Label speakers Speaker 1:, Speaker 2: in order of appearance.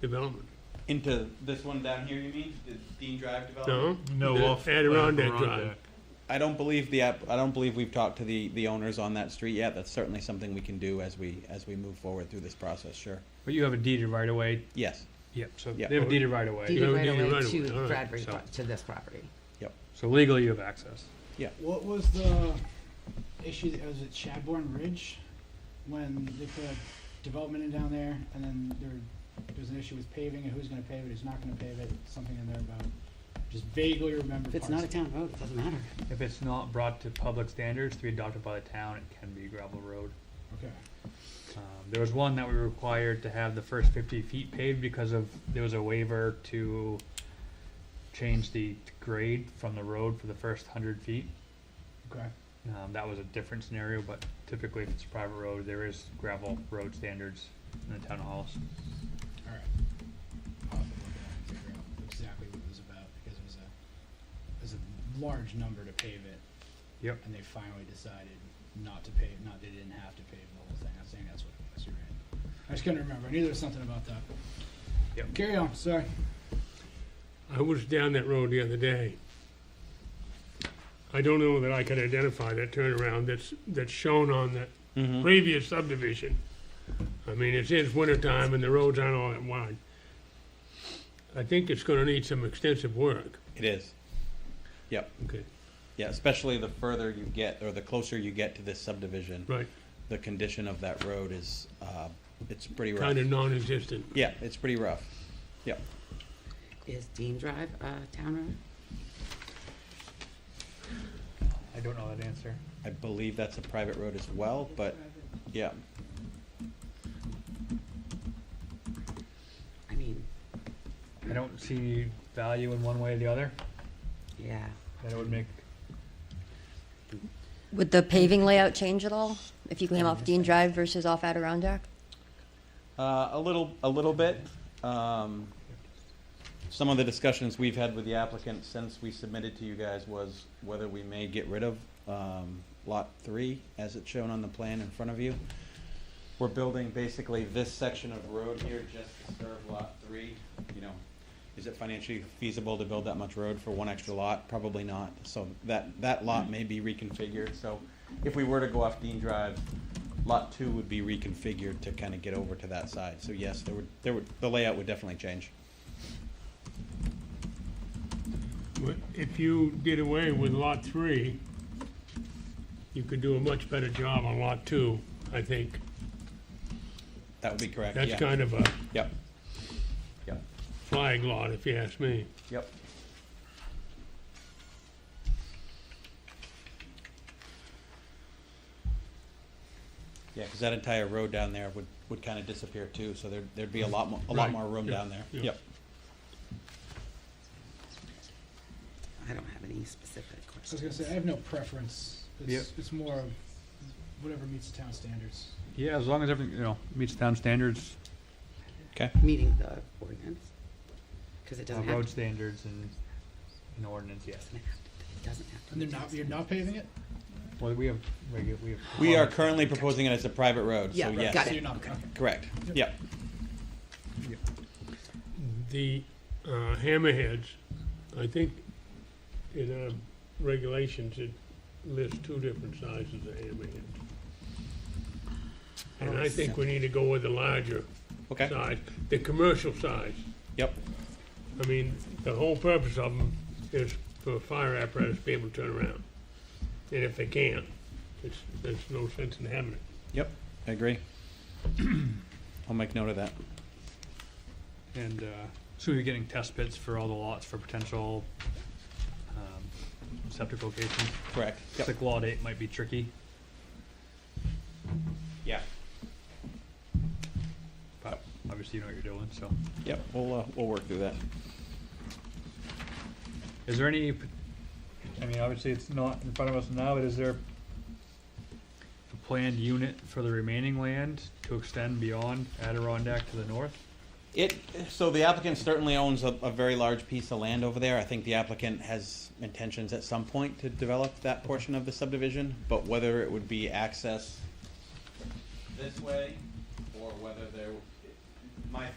Speaker 1: development.
Speaker 2: Into this one down here, you mean? The Dean Drive development?
Speaker 1: No?
Speaker 3: No,
Speaker 1: The
Speaker 3: off
Speaker 1: Adirondack Drive.
Speaker 2: I don't believe the, app- I don't believe we've talked to the, the owners on that street yet. That's certainly something we can do as we, as we move forward through this process, sure.
Speaker 4: But you have a deeded right of way.
Speaker 2: Yes,
Speaker 4: Yep. So
Speaker 2: Yeah.
Speaker 4: they have a deeded right of way.
Speaker 1: Yeah,
Speaker 5: deeded
Speaker 1: we
Speaker 5: right
Speaker 1: deeded
Speaker 5: away
Speaker 1: right away, all
Speaker 5: to
Speaker 1: right,
Speaker 5: Bradbury,
Speaker 4: so-
Speaker 5: pro- to this property.
Speaker 4: So legally, you have access.
Speaker 6: What was the issue, that- was it Shadbourne Ridge? When they put a development in down there and then there, there was an issue with paving and who's gonna pave it, who's not gonna pave it, something in there about, just vaguely remember
Speaker 5: If
Speaker 6: parts.
Speaker 5: it's not a town road, it doesn't matter.
Speaker 4: If it's not brought to public standards to be adopted by the town, it can be a gravel road.
Speaker 6: Okay,
Speaker 4: Um, there was one that we were required to have the first fifty feet paved because of, there was a waiver to change the grade from the road for the first hundred feet.
Speaker 6: okay,
Speaker 4: Um, that was a different scenario, but typically if it's a private road, there is gravel road standards in the town halls.
Speaker 6: alright. I'll have to look at it and figure out exactly what it was about, because it was a, it was a large number to pave it.
Speaker 4: Yep.
Speaker 6: And they finally decided not to pave, not, they didn't have to pave the whole thing, I'm saying that's what it was, you're right. I just couldn't remember, I knew there was something about that.
Speaker 4: Yep.
Speaker 6: Carry on, sorry.
Speaker 1: I was down that road the other day. I don't know that I could identify that turnaround that's, that's shown on that previous subdivision. I mean, it's, it's wintertime and the roads aren't all that wide. I think it's gonna need some extensive work.
Speaker 2: it is. Yep,
Speaker 1: Okay.
Speaker 2: yeah, especially the further you get, or the closer you get to this subdivision,
Speaker 1: Right,
Speaker 2: the condition of that road is, uh, it's pretty rough.
Speaker 1: kinda non-existent.
Speaker 2: Yeah, it's pretty rough. Yep.
Speaker 5: Is Dean Drive a town road?
Speaker 4: I don't know that answer.
Speaker 2: I believe that's a private road as well, but yeah,
Speaker 5: I mean,
Speaker 4: I don't see value in one way or the other,
Speaker 5: yeah.
Speaker 4: that it would make,
Speaker 7: Would the paving layout change at all if you came off Dean Drive versus off Adirondack?
Speaker 2: uh, a little, a little bit. Um, some of the discussions we've had with the applicant since we submitted to you guys was whether we may get rid of um, lot three as it's shown on the plan in front of you. We're building basically this section of road here just to serve lot three. You know, is it financially feasible to build that much road for one extra lot? Probably not. So that, that lot may be reconfigured. So if we were to go off Dean Drive, lot two would be reconfigured to kind of get over to that side. So yes, there would, there would, the layout would definitely change.
Speaker 1: But If you did away with lot three, you could do a much better job on lot two, I think.
Speaker 2: That would be correct,
Speaker 1: That's
Speaker 2: yeah.
Speaker 1: kind of a
Speaker 2: Yep. Yep,
Speaker 1: flag lot, if you ask me.
Speaker 2: yep. Yeah, because that entire road down there would, would kind of disappear too, so there'd, there'd be a lot more, a lot
Speaker 1: Right,
Speaker 2: more room
Speaker 1: yeah,
Speaker 2: down there.
Speaker 1: yeah.
Speaker 2: Yep.
Speaker 5: I don't have any specific
Speaker 6: I was gonna
Speaker 5: questions.
Speaker 6: say, I have no preference. It's, it's more of whatever meets the town standards.
Speaker 4: yeah, as long as everything, you know, meets town standards,
Speaker 5: Meeting the ordinance, because it
Speaker 4: uh,
Speaker 5: doesn't have,
Speaker 4: road
Speaker 5: to-
Speaker 4: standards and, and ordinance, yes.
Speaker 5: doesn't have to- it doesn't have to.
Speaker 6: And they're
Speaker 5: meet
Speaker 6: not,
Speaker 5: town
Speaker 6: you're not paving it?
Speaker 4: Well, we have, regu- we have.
Speaker 2: We are currently proposing it as a private road, so
Speaker 5: Yeah, right,
Speaker 2: yes.
Speaker 5: got
Speaker 6: So
Speaker 5: it.
Speaker 6: you're not, okay.
Speaker 2: Correct, yep.
Speaker 1: The uh, hammerheads, I think in our regulations, it lists two different sizes of hammerheads. And I think we need to go with the larger
Speaker 2: Okay,
Speaker 1: size, the commercial size.
Speaker 2: yep,
Speaker 1: I mean, the whole purpose of them is for fire apparatus to be able to turn around. And if they can't, it's, there's no sense in having it.
Speaker 2: yep, I agree. I'll make note of that.
Speaker 4: And uh, so we're getting test pits for all the lots for potential um, septic locations.
Speaker 2: Correct, yep,
Speaker 4: Sick law date might be tricky,
Speaker 2: yeah,
Speaker 4: but obviously you know what you're doing, so.
Speaker 2: yep, we'll, uh, we'll work through that.
Speaker 4: Is there any, p- I mean, obviously it's not in front of us now, but is there a planned unit for the remaining land to extend beyond Adirondack to the north?
Speaker 2: It, so the applicant certainly owns a, a very large piece of land over there. I think the applicant has intentions at some point to develop that portion of the subdivision, but whether it would be access this way, or whether there